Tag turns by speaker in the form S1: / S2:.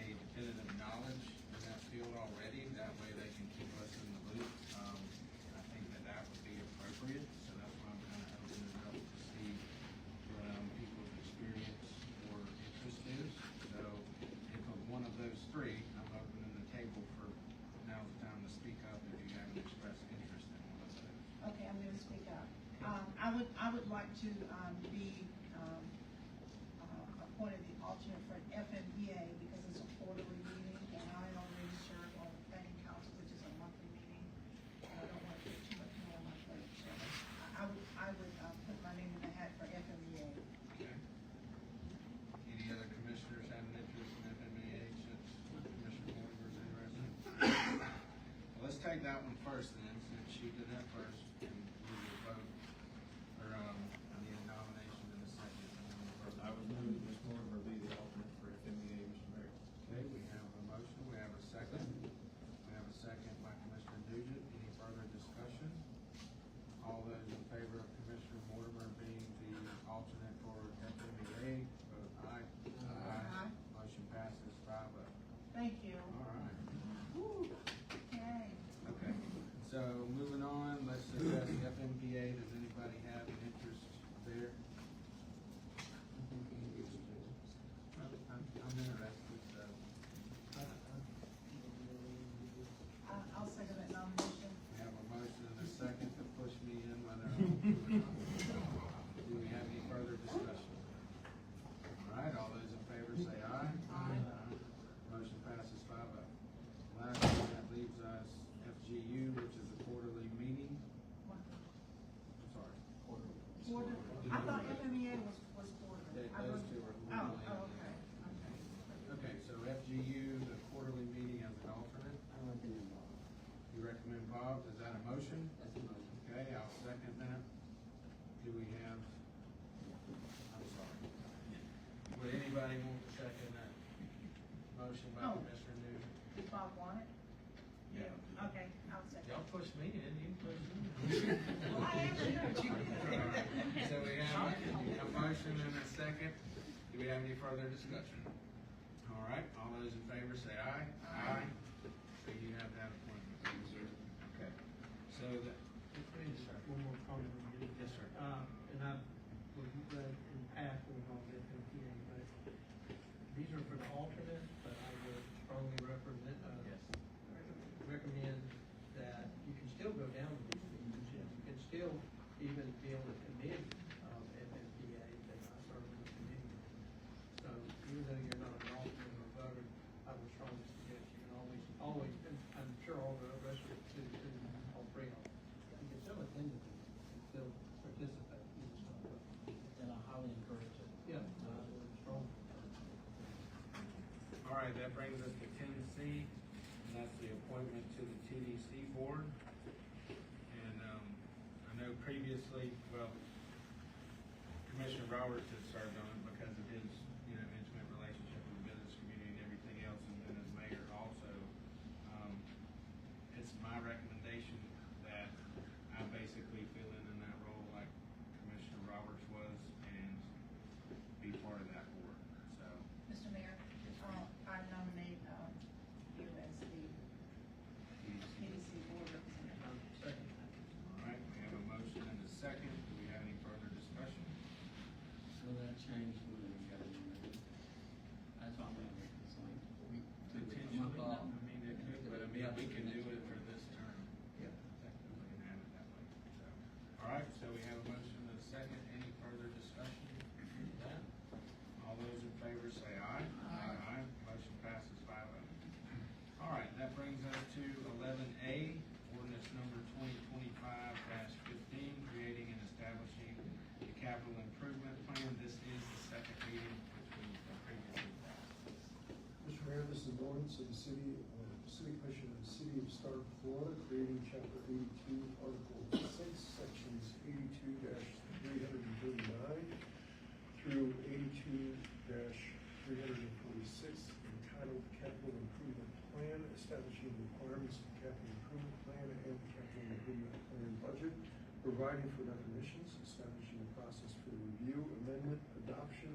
S1: Um, um,
S2: Um, would like to, um, be, um, uh, appointed the alternate for FNBA because it's a quarterly meeting and I already serve on the planning council, which is a monthly meeting. And I don't want to put too much more on my plate, so I, I would, I would, uh, put my name in the hat for FNBA.
S1: Okay. Any other commissioners have an interest in FMEA since Commissioner Mortimer is interested? Well, let's take that one first then, since she did that first, and we will vote for, um, the nomination in a second. and then we'll vote.
S3: I would move that Ms. Mortimer be the alternate for E FMEA, Mr. Mayor.
S1: Okay, we have a motion, we have a second. We have a second by Commissioner Nugent. Any further discussion? All those in favor of Commissioner Mortimer being the alternate for FMEA, vote aye.
S2: Aye.
S1: Motion passes five oh.
S2: Thank you.
S1: All right.
S2: Woo. Okay.
S1: Okay. So moving on, let's address the FMPA. Does anybody have an interest there? I'm, I'm I'm interested, so.
S2: I, Uh, I'll second that nomination.
S1: We have a motion and a second to push me in whether I'm or not. Do we have any further discussion? All right, all those in favor say aye.
S2: Aye.
S1: Motion passes five oh. Lastly, that leaves us FGU, which is a quarterly meeting. I'm sorry.
S2: Quarter, I thought FMEA was, was quarterly.
S1: They-
S2: I
S1: Those
S2: wrote-
S1: two are.
S2: Oh,
S1: quarterly.
S2: oh, okay, okay.
S1: Okay, so FGU, the quarterly meeting as an alternate. You recommend Bob, is that a motion?
S4: That's a motion.
S1: Okay, I'll second that. Do we have, I'm sorry. Would anybody want to second that? Motion by
S2: No.
S1: Commissioner Newton.
S2: Did Bob want it?
S1: Yeah.
S2: Okay, I'll second.
S1: Y'all push me in, you push me in.
S2: Well, I am in there, but you did.
S1: So we have a motion and a second. Do we have any further discussion? All right, all those in favor say aye. Aye. So you have that appointment. Okay. So that,
S5: One more comment on this.
S1: yes, sir.
S5: Uh, and I've, we've read in the past, we've all been confused, but these are for the alternate, but I would strongly represent, uh, recommend that you can still go down to these meetings, and you can still even be on the committee of MMPA, that I serve on the committee. So even though you're not an alternate or voter, I would strongly suggest you can always, always, and I'm sure all the rest of the, to, all three of them, you can still attend the meeting, you can still participate, you just don't vote.
S4: And I highly encourage it.
S5: Yeah, I would strongly.
S1: All right, that brings us to ten C, and that's the appointment to the TDC board. And, um, I know previously, well, Commissioner Roberts had served on it because of his, you know, intimate relationship with the business community and everything else, and then as mayor also. Um, It's my recommendation that I basically fill in in that role like Commissioner Roberts was and be part of that board, so.
S2: Mr. Mayor, uh, I nominate, um, you as the
S1: TDC.
S2: PDC board representative.
S5: Second.
S1: All right, we have a motion and a second. Do we have any further discussion?
S4: So that changed when we got in there. That's all I'm gonna, it's like, we, a month
S1: Potentially,
S4: off.
S1: I mean, it could, but I mean, we can do it for this term.
S5: Yeah.
S1: Technically, and have it that way, so. All right, so we have a motion and a second. Any further discussion? on that? All those in favor say aye. Aye. Motion passes five oh. All right, that brings us to eleven A, ordinance number twenty twenty-five fifteen, creating and establishing the capital improvement plan. This is the second reading, which we previously passed.
S6: Mr. Mayor, this is an ordinance of the city, uh, city commission of the city of Stark, Florida, creating chapter eighty-two, article six, sections eighty-two three hundred and thirty-nine through eighty-two three hundred and forty-six, entitled Capital Improvement Plan, establishing requirements for capital improvement plan and the capital improvement plan budget, providing for definitions, establishing a process for review, amendment, adoption,